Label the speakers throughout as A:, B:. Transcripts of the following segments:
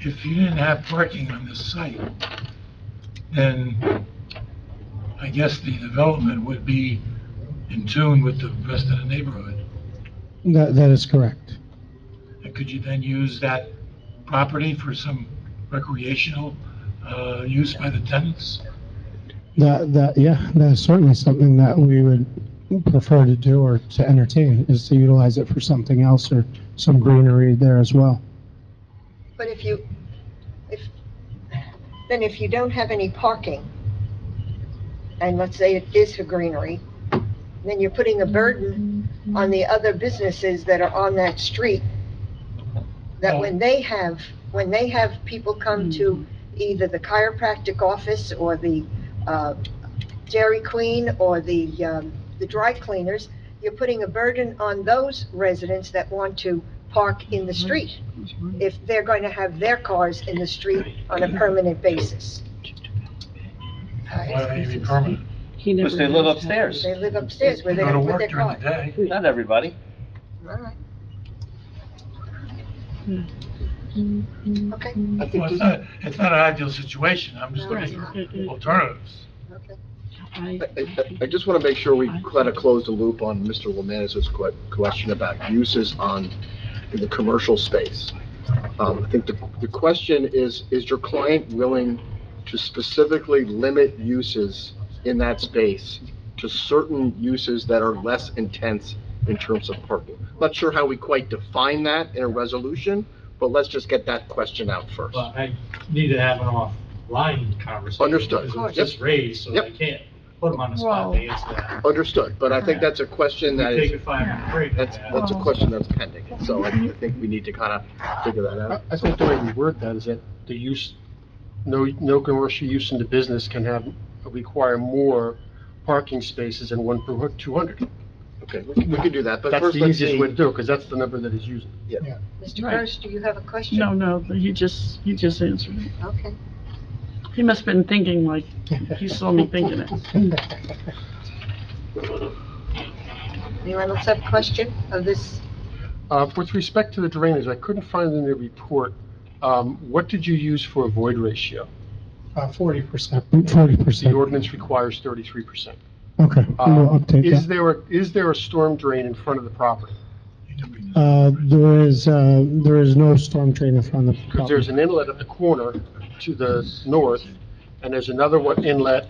A: if you didn't have parking on this site, then I guess the development would be in tune with the rest of the neighborhood.
B: That, that is correct.
A: And could you then use that property for some recreational uh, use by the tenants?
B: That, that, yeah, that is certainly something that we would prefer to do or to entertain, is to utilize it for something else or some greenery there as well.
C: But if you, if, then if you don't have any parking, and let's say it is for greenery, then you're putting a burden on the other businesses that are on that street, that when they have, when they have people come to either the chiropractic office or the, uh, Dairy Queen or the, um, the dry cleaners, you're putting a burden on those residents that want to park in the street if they're going to have their cars in the street on a permanent basis.
A: Why would it be permanent?
D: He
E: Because they
D: never
E: live
D: knows how-
E: upstairs.
C: They live upstairs where
A: Go to
C: they're going to put
A: work
C: their
A: during the
C: car.
A: day.
E: Not everybody.
C: All right. Okay,
A: Well, it's not, it's not an ideal situation, I'm just looking for alternatives.
C: okay.
D: I-
F: I- I I just want to make sure we kind of close the loop on Mr. Lemanis's que- question about uses on, in the commercial space. Um, I think the, the question is, is your client willing to specifically limit uses in that space to certain uses that are less intense in terms of parking? Not sure how we quite define that in a resolution, but let's just get that question out first.
G: But I need to have an offline conversation.
F: Understood.
G: Because it was just raised, so I
F: Yep.
G: can't put them on the spot uh, to answer that.
F: Understood, but I think that's a question that is.
G: Take a five-minute break.
F: That's, that's a question that's pending, so I I think we need to kind of figure that
H: I
F: out.
H: I think the way we word that is that the use, no, no commercial use in the business can have, require more parking spaces than one per 200.
F: Okay, we can- we can do that, but
H: That's
F: first
H: the
F: let's
H: easiest
F: see.
H: way to do it, because that's the number that is used.
C: Mr. Gross, do you have a question?
D: No, no, he just, he just answered it.
C: Okay.
D: He must've been thinking like, he saw me thinking it.
C: Anyone else have a question of this?
H: Uh, With respect to the drainage, I couldn't find in the report, um, what did you use for a void ratio? uh,
B: Forty percent. Forty
H: The
B: percent,
H: ordinance requires 33%.
B: okay, we'll
H: Um, Is
B: update that.
H: there, a- is there a storm drain in front of the property?
A: You can be-
B: Uh, there is, uh, there is no storm drain in front of the
H: Because there's
B: property.
H: an inlet at the corner to the north, and there's another one inlet,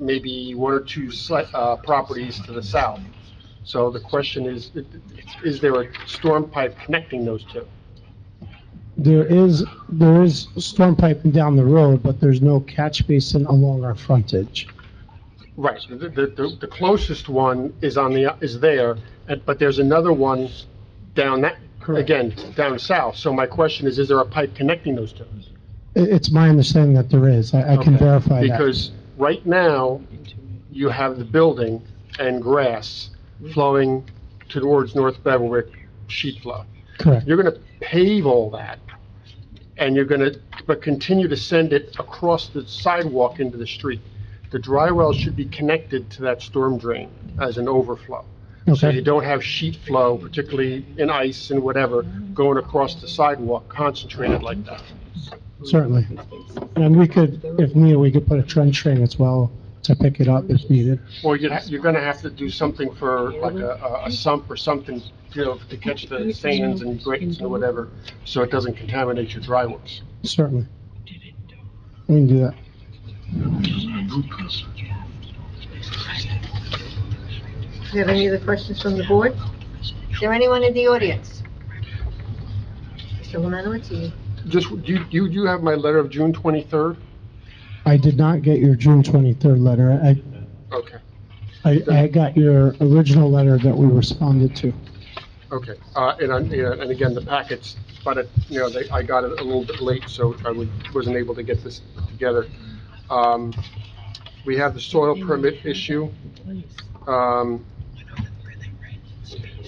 H: maybe one or two sli- uh, properties to the south. So the question is, is there a storm pipe connecting those two?
B: There is, there is storm piping down the road, but there's no catch basin along our frontage.
H: Right, so the, the, the closest one is on the, is there, and- but there's another one down that,
B: Correct.
H: again, down south. So my question is, is there a pipe connecting those two?
B: I- it's my understanding that there is, I, I can
H: Okay.
B: verify that.
H: Because right now, you have the building and grass flowing towards North Beverwick sheet flow.
B: Correct,
H: You're gonna pave all that, and you're gonna, but continue to send it across the sidewalk into the street. The dry well should be connected to that storm drain as an overflow. So you
B: okay,
H: don't have sheet flow, particularly in ice and whatever, going across the sidewalk concentrated like that.
B: certainly. And we could, if needed, we could put a trench drain as well to pick it up if needed.
H: Or you're, you're gonna have to do something for, like a, a- a sump or something, you know, to catch the sands and grates and whatever, so it doesn't contaminate your dry wells.
B: Certainly. We can do that.
C: Do you have any other questions from the board? Is there anyone in the audience? Mr. Lemanowitz, you-
H: Just, do you, do you have my letter of June twenty-third?
B: I did not get your June 23rd letter. I,
H: Okay,
B: I, I got your original letter that we responded to.
H: okay. Uh, and I, yeah, and again, the packets, but it, you know, they, I got it a little bit late, so I was, wasn't able to get this together. Um, we have the soil permit issue. Um,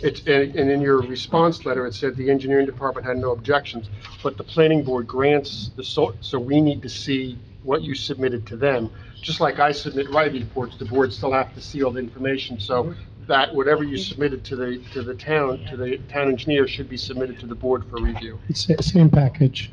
H: It's, and and in your response letter, it said the engineering department had no objections, but the planning board grants the, so, so we need to see what you submitted to them. Just like I submit my reports, the board still have to see all the information, so that, whatever you submitted to the, to the town, to the town engineer should be submitted to the board for review.
B: It's the same package.